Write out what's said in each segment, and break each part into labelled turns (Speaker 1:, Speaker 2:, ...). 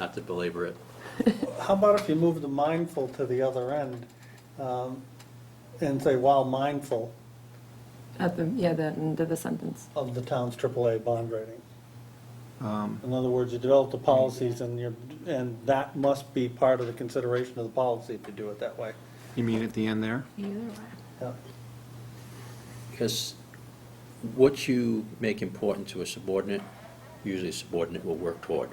Speaker 1: not to belabor it.
Speaker 2: How about if you move the mindful to the other end um, and say while mindful
Speaker 3: At the, yeah, the end of the sentence.
Speaker 2: of the town's AAA bond rating? In other words, you develop the policies and you're, and that must be part of the consideration of the policy if you do it that way.
Speaker 4: You mean at the end there?
Speaker 3: Either way.
Speaker 2: Yeah.
Speaker 1: Because what you make important to a subordinate, usually a subordinate will work toward.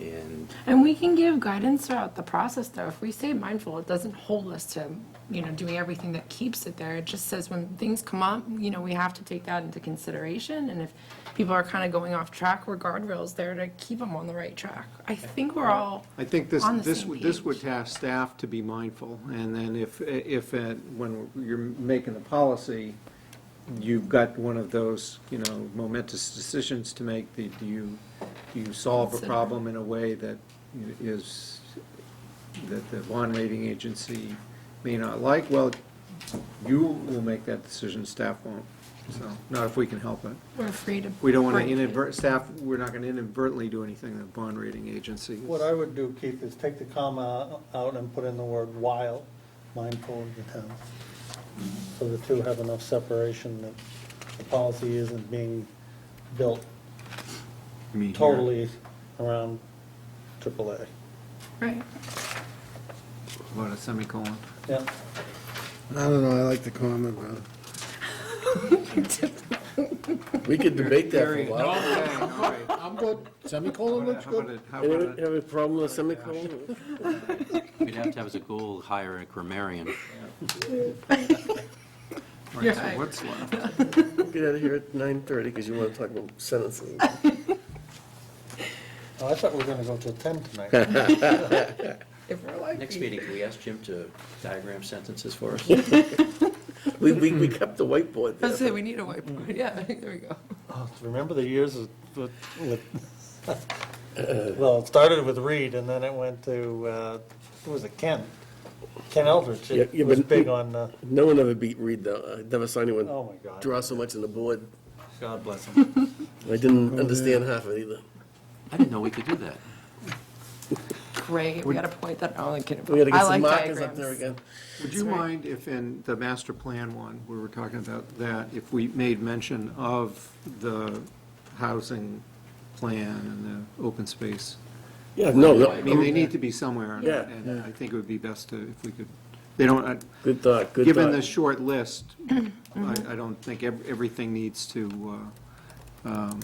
Speaker 1: And
Speaker 3: And we can give guidance throughout the process, though. If we stay mindful, it doesn't hold us to, you know, doing everything that keeps it there. It just says when things come up, you know, we have to take that into consideration. And if people are kind of going off track, we're guardrails there to keep them on the right track. I think we're all
Speaker 4: I think this,
Speaker 3: on the
Speaker 4: this,
Speaker 3: same
Speaker 4: would- this
Speaker 3: page.
Speaker 4: would task staff to be mindful, and then if, if, uh, when you're making the policy, you've got one of those, you know, momentous decisions to make, the- do you, do you solve a
Speaker 3: Consider.
Speaker 4: problem in a way that is, that the bond rating agency may not like? Well, you will make that decision, staff won't, so, not if we can help it.
Speaker 3: we're free to.
Speaker 4: We don't want to
Speaker 3: break it.
Speaker 4: inadvert, staff, we're not going to inadvertently do anything that bond rating agency is.
Speaker 2: What I would do, Keith, is take the comma out and put in the word while mindful of the town. So the two have enough separation that the policy isn't being built
Speaker 4: You mean here?
Speaker 2: totally around AAA.
Speaker 3: Right.
Speaker 4: About a semicolon.
Speaker 2: Yeah,
Speaker 5: I don't know, I like the comment, but. We could debate that for a while.
Speaker 4: Okay, all right. How
Speaker 5: I'm good, semicolon
Speaker 4: about
Speaker 5: looks
Speaker 4: a- how
Speaker 5: good.
Speaker 4: about a- how
Speaker 5: Anyone
Speaker 4: about a-
Speaker 5: Have a problem with semicolon?
Speaker 1: we'd have to have as a goal, hire a grammarian.
Speaker 4: all right, so
Speaker 3: Yeah.
Speaker 4: what's left?
Speaker 5: Get out of here at nine thirty, because you want to talk about sentences.
Speaker 2: Oh, I thought we were gonna go till ten tonight.
Speaker 3: If we're like.
Speaker 1: Next
Speaker 3: these-
Speaker 1: meeting, can we ask Jim to diagram sentences for us?
Speaker 5: We, we, we kept the whiteboard
Speaker 3: Let's say
Speaker 5: there.
Speaker 3: we need a whiteboard. Yeah, there we go.
Speaker 2: Oh, Remember the years of- with, with- well, it started with Reed and then it went to, uh, who was it, Ken? Ken Eldridge
Speaker 5: Yeah, yeah,
Speaker 2: was
Speaker 5: but-
Speaker 2: big on, uh,
Speaker 5: No one ever beat Reed, though. I never saw
Speaker 2: oh
Speaker 5: anyone
Speaker 2: my God.
Speaker 5: draw so much on the board.
Speaker 2: God bless him.
Speaker 5: I
Speaker 2: Oh,
Speaker 5: didn't understand half of it either.
Speaker 1: I didn't know we could do that.
Speaker 3: Great. We got a point that only can.
Speaker 5: We gotta
Speaker 3: I
Speaker 5: get some
Speaker 3: like
Speaker 5: markers up
Speaker 3: diagrams.
Speaker 5: there again.
Speaker 4: Would you mind if in the master plan one, where we're talking about that, if we made mention of the housing plan and the open space?
Speaker 5: Yeah, no,
Speaker 4: I mean, they
Speaker 5: no,
Speaker 4: need to be somewhere, and-
Speaker 5: Yeah.
Speaker 4: and I think it would be best to, if we could, they don't, I-
Speaker 5: good thought, good
Speaker 4: Given the
Speaker 5: thought.
Speaker 4: short list, I, I don't think ev- everything needs to, uh, um,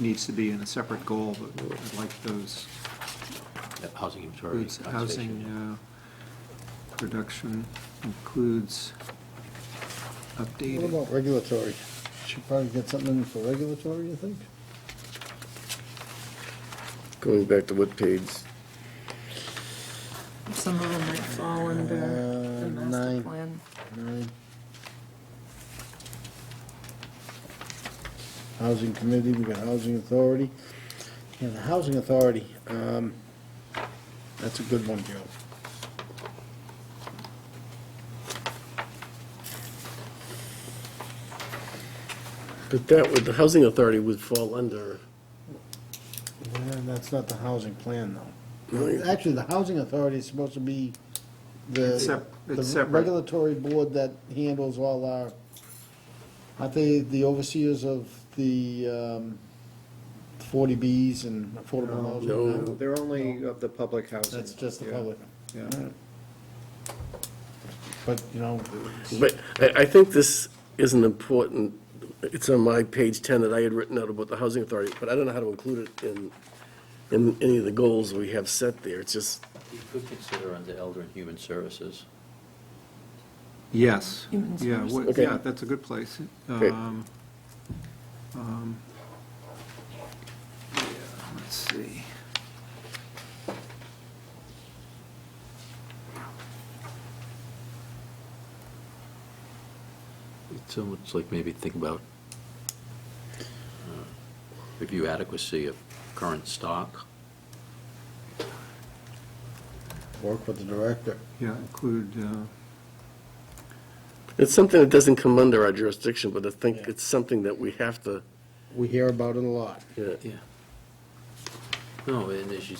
Speaker 4: needs to be in a separate goal, but I'd like those
Speaker 1: That Housing inventory,
Speaker 4: includes
Speaker 1: conservation.
Speaker 4: housing uh, production, includes
Speaker 6: What
Speaker 4: updated.
Speaker 6: about regulatory? Should probably get something in for regulatory, you think?
Speaker 5: Going back to what page?
Speaker 3: Some of them might fall under the
Speaker 6: Uh,
Speaker 3: master
Speaker 6: nine.
Speaker 3: plan.
Speaker 6: Nine. Housing committee, we got housing authority. Yeah, the housing authority, um, that's a good one, Joe.
Speaker 5: But that would, the housing authority would fall under,
Speaker 6: Yeah, that's not the housing plan, though.
Speaker 5: Right.
Speaker 6: Actually, the housing authority is supposed to be
Speaker 4: It's
Speaker 6: the,
Speaker 4: sep- it's
Speaker 6: the
Speaker 4: separate.
Speaker 6: regulatory board that handles all our, aren't they the overseers of the, um, forty Bs and affordable housing?
Speaker 5: No.
Speaker 4: They're only of the public housing.
Speaker 6: That's just the
Speaker 4: Yeah,
Speaker 6: public.
Speaker 4: yeah.
Speaker 6: But, you know,
Speaker 5: but I, I think this is an important, it's on my page 10 that I had written out about the housing authority, but I don't know how to include it in, in any of the goals we have set there. It's just,
Speaker 1: You could consider under elder and human services.
Speaker 4: Yes,
Speaker 3: Human
Speaker 4: yeah,
Speaker 3: source.
Speaker 4: what-
Speaker 5: Okay.
Speaker 4: yeah, that's a good place.
Speaker 5: Okay.
Speaker 4: Um, um, yeah, Let's see.
Speaker 1: It's almost like maybe think about uh, review adequacy of current stock.
Speaker 6: work with the director.
Speaker 4: Yeah, include, uh,
Speaker 5: it's something that doesn't come under our jurisdiction, but I think it's something that we have to,
Speaker 6: We hear about it a lot.
Speaker 5: yeah.
Speaker 1: Yeah. No, and as you